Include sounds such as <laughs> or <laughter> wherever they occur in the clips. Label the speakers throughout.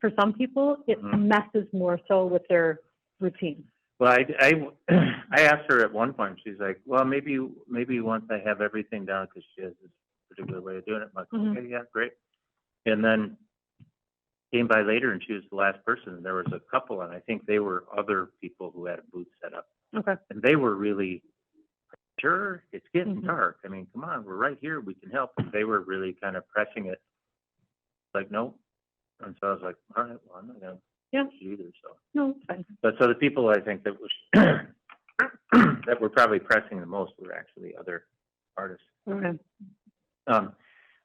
Speaker 1: for some people, it
Speaker 2: Mhm.
Speaker 1: messes more so with their routine.
Speaker 2: Well, I, I, <clears throat> I asked her at one point, she's like, well, maybe, maybe once I have everything down, because she has this particular way of doing it, I'm like,
Speaker 1: Mhm.
Speaker 2: okay, yeah, great. And then came by later and she was the last person, and there was a couple, and I think they were other people who had a booth set up.
Speaker 1: Okay.
Speaker 2: And they were really, sure, it's getting
Speaker 1: Mhm.
Speaker 2: dark, I mean, come on, we're right here, we can help, and they were really kind of pressing it, like, no. And so I was like, all right, well, I'm not gonna
Speaker 1: Yeah.
Speaker 2: push it either, so.
Speaker 1: No, it's fine.
Speaker 2: But so the people I think that was, <clears throat> that were probably pressing the most were actually other artists.
Speaker 1: Okay.
Speaker 2: Um,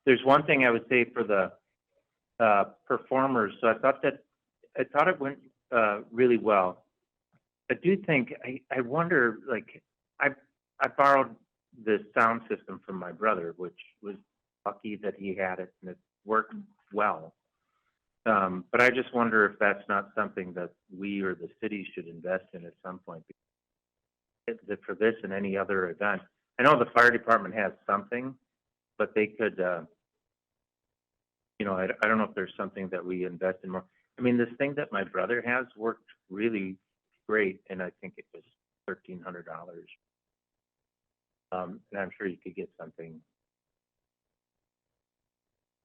Speaker 2: there's one thing I would say for the, uh, performers, so I thought that, I thought it went, uh, really well. I do think, I, I wonder, like, I, I borrowed the sound system from my brother, which was lucky that he had it and it worked well. Um, but I just wonder if that's not something that we or the city should invest in at some point. It- that For this and any other event, I know the fire department has something, but they could, uh, you know, I, I don't know if there's something that we invest in more. I mean, this thing that my brother has worked really great, and I think it was thirteen hundred dollars. Um, and I'm sure you could get something.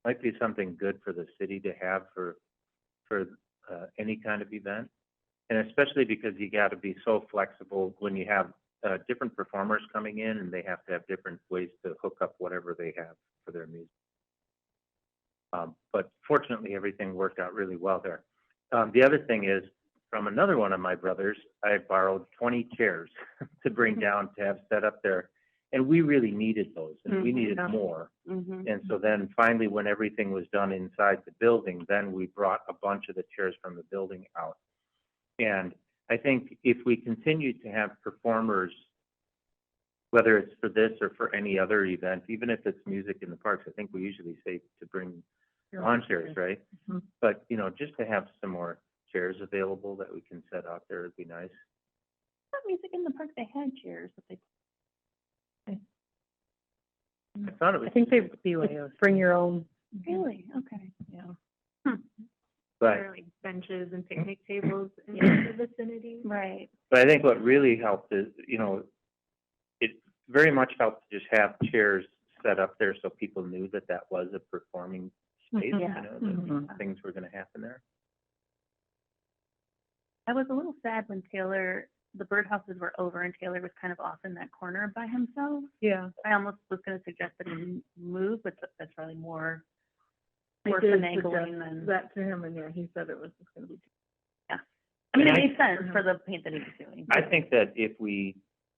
Speaker 2: Might be something good for the city to have for, for, uh, any kind of event. And especially because you gotta be so flexible when you have, uh, different performers coming in and they have to have different ways to hook up whatever they have for their music. Um, but fortunately, everything worked out really well there. Um, the other thing is, from another one of my brothers, I borrowed twenty chairs <laughs> to bring down to have set up there. And we really needed those, and we
Speaker 1: Mhm,
Speaker 2: needed
Speaker 1: yeah.
Speaker 2: more.
Speaker 3: Mm-hmm.
Speaker 2: And so then finally, when everything was done inside the building, then we brought a bunch of the chairs from the building out. And I think if we continue to have performers, whether it's for this or for any other event, even if it's music in the parks, I think we usually say to bring lawn chairs, right?
Speaker 1: Mhm.
Speaker 2: But, you know, just to have some more chairs available that we can set out there would be nice.
Speaker 3: music in the park, they had chairs that they.
Speaker 2: I thought it was.
Speaker 1: Mm-hmm. I think they,
Speaker 3: BYOs.
Speaker 1: bring your own.
Speaker 4: Mm-hmm.
Speaker 3: Really? Okay.
Speaker 1: Yeah.
Speaker 2: But
Speaker 4: Or like benches and picnic tables in the <clears throat> vicinity.
Speaker 3: Right.
Speaker 2: But I think what really helped is, you know, it very much helped to just have chairs set up there so people knew that that was a performing space, you
Speaker 3: Yeah.
Speaker 2: know, that
Speaker 3: Mhm.
Speaker 2: things were gonna happen there.
Speaker 4: I was a little sad when Taylor, the birdhouses were over and Taylor was kind of off in that corner by himself.
Speaker 1: Yeah.
Speaker 4: I almost was gonna suggest that he move, but tha- that's probably more,
Speaker 1: I
Speaker 4: more
Speaker 1: did
Speaker 4: finagling than.
Speaker 1: That to him, and yeah, he said it was just gonna be.
Speaker 4: I mean, it
Speaker 2: And I-
Speaker 4: made sense for the paint that he was doing.
Speaker 2: I think that if we,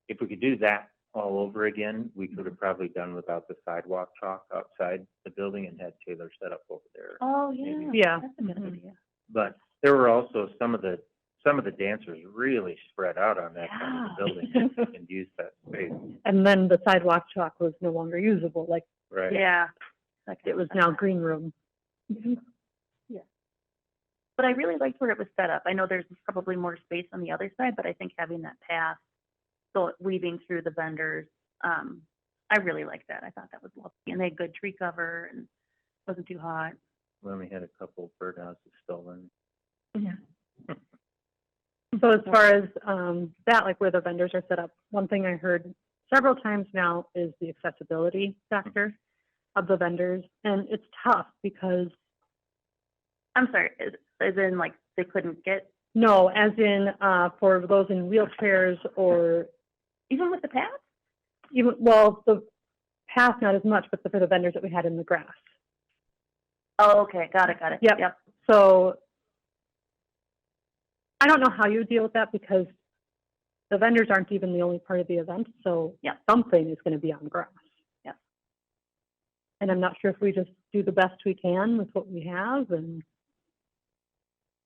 Speaker 2: if we could do that all over again, we could have probably done without the sidewalk chalk outside the building and had Taylor set up over there.
Speaker 4: Oh, yeah.
Speaker 2: Maybe.
Speaker 1: Yeah.
Speaker 4: That's a good
Speaker 1: Mhm.
Speaker 4: idea.
Speaker 2: But there were also some of the, some of the dancers really spread out on that side of the building and- and used that space,
Speaker 1: And then the sidewalk chalk was no longer usable, like
Speaker 2: right?
Speaker 4: Yeah.
Speaker 1: like it was now green room.
Speaker 4: But I really liked where it was set up. I know there's probably more space on the other side, but I think having that path, so weaving through the vendors, um, I really liked that. I thought that was lovely. And they had good tree cover and wasn't too hot.
Speaker 2: We only had a couple birdhouses stolen.
Speaker 1: So as far as, um, that, like where the vendors are set up, one thing I heard several times now is the accessibility factor of the vendors. And it's tough because,
Speaker 4: I'm sorry, as, as in like they couldn't get,
Speaker 1: no, as in, uh, for those in wheelchairs or
Speaker 4: even with the path?
Speaker 1: even, well, the path not as much, but the- for the vendors that we had in the grass.
Speaker 4: Oh, okay, got it, got it.
Speaker 1: Yep.
Speaker 4: Yep.
Speaker 1: So I don't know how you deal with that because the vendors aren't even the only part of the event, so
Speaker 4: Yeah.
Speaker 1: something is going to be on grass.
Speaker 4: Yeah.
Speaker 1: And I'm not sure if we just do the best we can with what we have and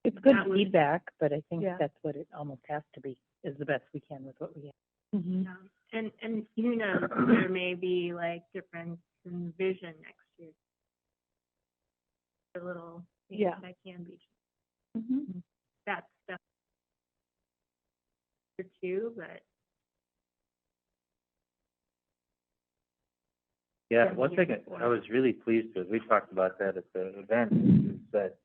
Speaker 3: It's good
Speaker 4: That would-
Speaker 3: feedback, but I think
Speaker 1: Yeah.
Speaker 3: that's what it almost has to be, is the best we can with what we have.
Speaker 1: Mm-hmm.
Speaker 5: And, and who knows, there may be like difference in vision next year. A little,
Speaker 1: Yeah. Mm-hmm.
Speaker 5: yeah, that can be, that's stuff. Or two, but
Speaker 2: Yeah,
Speaker 5: been
Speaker 2: one
Speaker 5: here
Speaker 2: thing I- I
Speaker 5: before.
Speaker 2: was really pleased with, we talked about that at the event, is that